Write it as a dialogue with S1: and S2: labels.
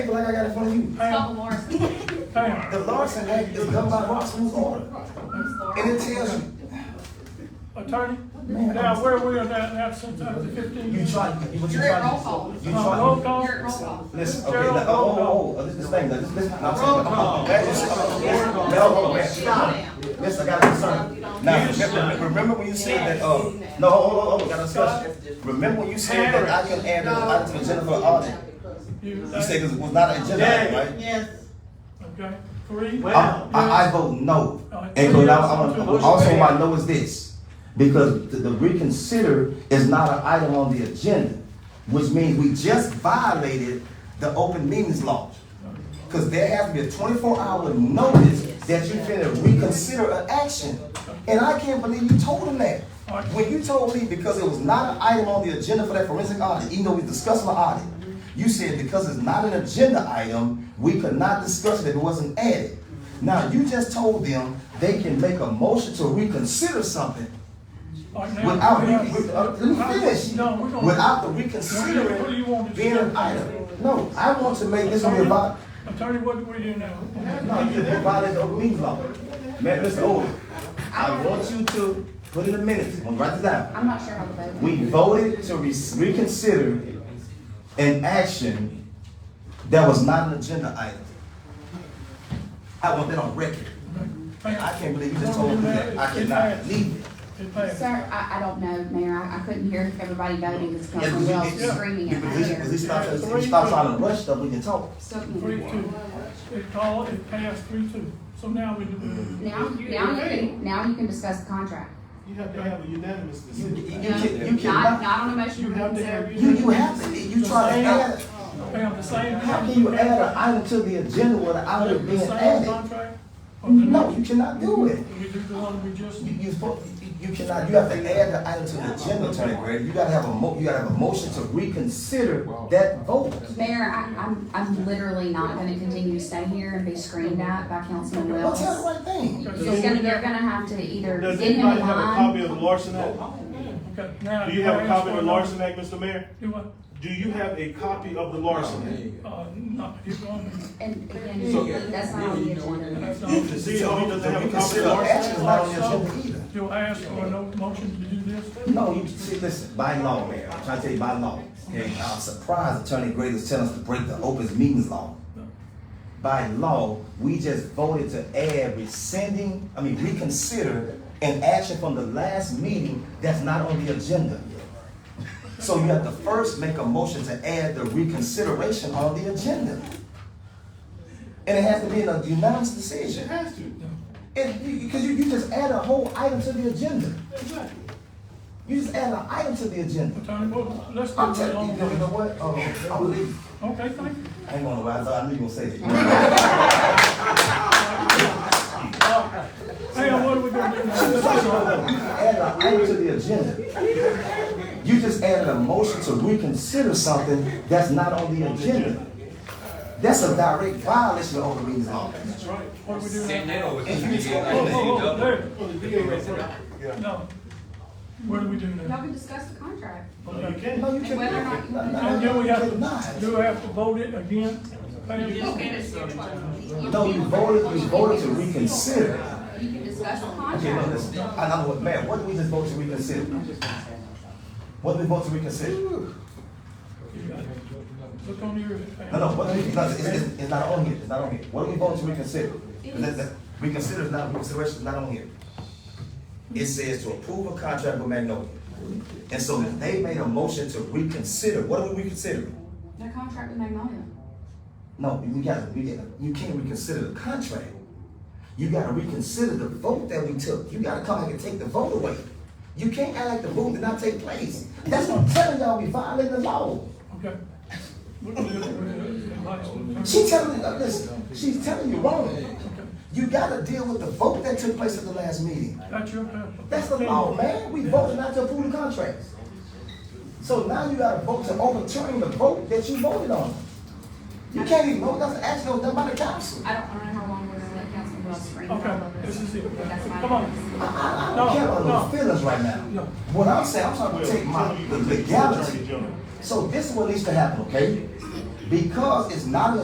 S1: paper like I got in front of you.
S2: Stella Morrison.
S3: Pam,
S1: The Larson Act is done by Ross Rules Order. And it tells you,
S3: attorney,
S1: Man,
S3: now where we are now, now since I was
S1: you
S3: fifteen years.
S1: try, what you
S2: You're at roll
S1: try.
S2: call.
S1: You
S3: Uh, roll
S1: try.
S3: call,
S2: You're at roll call.
S1: Listen, okay, let- oh, oh, oh, this is the thing, this, this, I'm saying. That's just- No, hold on, man. Yes, I got a concern. Now, remember, remember when you said that, uh, no, hold on, hold on, we got a discussion. Remember when you said that I can add an item to the agenda for audit?
S3: you,
S1: You said it was not an agenda, item, right?
S4: Yes.
S3: okay, three,
S1: I, I, I vote no.
S3: Uh,
S1: And but I, I
S3: to
S1: want,
S3: motion
S1: also
S3: fail.
S1: my no is this, because the, the reconsider is not an item on the agenda, which means we just violated the open meetings law. Cause there has to be a twenty-four hour notice that you finna reconsider an action. And I can't believe you told him that. When you told me because it was not an item on the agenda for that forensic audit, even though we discussed the audit, you said because it's not an agenda item, we could not discuss it if it wasn't added. Now, you just told them they can make a motion to reconsider something
S3: All right, now,
S1: without,
S3: we
S1: re-
S3: have-
S1: with- uh, let me finish.
S3: No, we're gonna-
S1: Without the
S3: What do you
S1: reconsidering
S3: want to
S1: being an
S3: do?
S1: item. No, I want to make this one
S3: Attorney-
S1: about,
S3: Attorney, what do we do now?
S1: no, you violated the open meetings law. Man, Mr. Owen, I want you to put in a minute, I'm gonna write this down.
S2: I'm not sure how to vote.
S1: We voted to re- reconsider an action that was not an agenda item. I want that on record. I can't believe you just told me that. I cannot believe it.
S3: It passed.
S5: Sir, I, I don't know, Mayor, I, I couldn't hear everybody voting, because
S1: Yeah,
S5: Councilman Wells was
S1: yeah.
S5: screaming
S1: Yeah,
S5: in my
S1: because he- because he
S5: ear.
S1: stopped, if he stopped trying to rush stuff, we can talk.
S5: So,
S3: Three,
S5: now,
S3: two, it called, it passed three, two, so now we do.
S5: now you can, now you can discuss the contract.
S4: You have to have a unanimous
S1: You
S4: decision.
S1: you
S5: No,
S1: can, you
S5: Not,
S1: cannot,
S5: not on a motion.
S4: You
S5: to
S4: have
S5: reconsider.
S4: to have.
S1: you, you have to, you try to add,
S3: Pam, the same.
S1: how can you add an item to the agenda without it
S3: The
S1: being
S3: same
S1: added?
S3: contract? or the
S1: No,
S3: new?
S1: you cannot do it.
S3: We do the one we just,
S1: You, you, spo- you you cannot, you have to add the item to the agenda, Attorney Gray. You gotta have a mo, you gotta have a motion to reconsider that vote.
S5: Mayor, I, I'm, I'm literally not gonna continue to stay here and be screamed at by Councilman
S1: Well,
S5: Wells.
S1: tell the right thing.
S3: Okay,
S5: It's gonna, you're gonna have to either
S4: Does
S5: get him in
S4: anybody have a
S5: line.
S4: copy of the Larson Act?
S3: okay, now.
S4: Do you have a copy of the
S3: Lawrence?
S4: Larson Act, Mr. Mayor?
S3: Do what?
S4: Do you have a copy of the Larson
S3: Uh, no, he's going.
S5: And
S4: So-
S5: again, that's not on the agenda.
S3: that's not-
S4: Act? The CEO doesn't
S1: The
S4: have a copy of
S1: reconsider
S4: the
S1: action is
S4: Larson Act?
S1: not on the agenda either.
S3: You'll ask for no motion to do this?
S1: No, you see, listen, by law, Mayor, I'm trying to tell you by law. Okay, I'm surprised Attorney Gray is telling us to break the open meetings law. By law, we just voted to add rescinding, I mean reconsider an action from the last meeting that's not on the agenda. So you have to first make a motion to add the reconsideration on the agenda. And it has to be in a unanimous
S4: It
S1: decision.
S4: has to.
S1: And, because you, you just add a whole item to the agenda.
S4: Exactly.
S1: You just add an item to the agenda.
S3: Attorney, well, let's do
S1: I'm
S3: it
S1: telling you,
S3: on
S1: you know
S3: the.
S1: what? Uh, I'm leaving.
S3: Okay, thank you.
S1: I ain't gonna lie, I thought I knew you were gonna say that.
S3: Hey, what are we gonna do now?
S1: Add an item to the agenda. You just added a motion to reconsider something that's not on the agenda. That's a direct violation of open meetings law.
S3: That's right. What are we doing
S6: Sit
S3: now?
S6: down with
S1: And you
S6: this
S1: told-
S3: Whoa,
S6: nigga.
S3: whoa, whoa, there.
S4: Well, the DA has it.
S3: No. What do we do
S5: Y'all
S3: now?
S5: can discuss the contract.
S4: No, you can't.
S1: No, you
S5: And whether or not
S1: can't.
S5: you-
S1: No, no,
S3: And then
S1: no,
S3: we
S1: you
S3: have to, do
S1: cannot.
S3: we have to vote it again?
S1: No, you voted, you voted to reconsider.
S5: You can discuss the
S1: Okay, no,
S5: contract.
S1: listen, I know what, man, what did we just vote to reconsider? What did we vote to reconsider?
S3: Look on your.
S1: No, no, what, no, it's, it's, it's not on here, it's not on here. What do we vote to reconsider? That- that- Reconsider is not, reconsideration is not on here. It says to approve a contract with Magnolia. And so if they made a motion to reconsider, what are we reconsidering?
S5: The contract with Magnolia.
S1: No, you gotta, you gotta, you can't reconsider the contract. You gotta reconsider the vote that we took. You gotta come back and take the vote away. You can't act like the vote did not take place. That's what I'm telling y'all, we violating the law.
S3: Okay. What do we do with the last one?
S1: She's telling you, listen, she's telling you wrong. You gotta deal with the vote that took place at the last meeting.
S3: That's your. uh, opinion.
S1: That's the law, man. We voted not to approve the contracts. So now you gotta vote to overturn the vote that you voted on. You can't even vote, that's an action that was done by the council.
S5: I don't, I don't know how long we're gonna let Councilman Wells scream.
S3: Okay, this is it. Come on.
S1: I, I, I
S3: No,
S1: don't care about
S3: no.
S1: those feelings right now.
S3: No.
S1: What I'm saying, I'm trying
S4: Well,
S1: to take my,
S4: some of
S1: the
S4: you- Attorney
S1: legality.
S4: General.
S1: So this is what needs to happen, okay? Because it's not an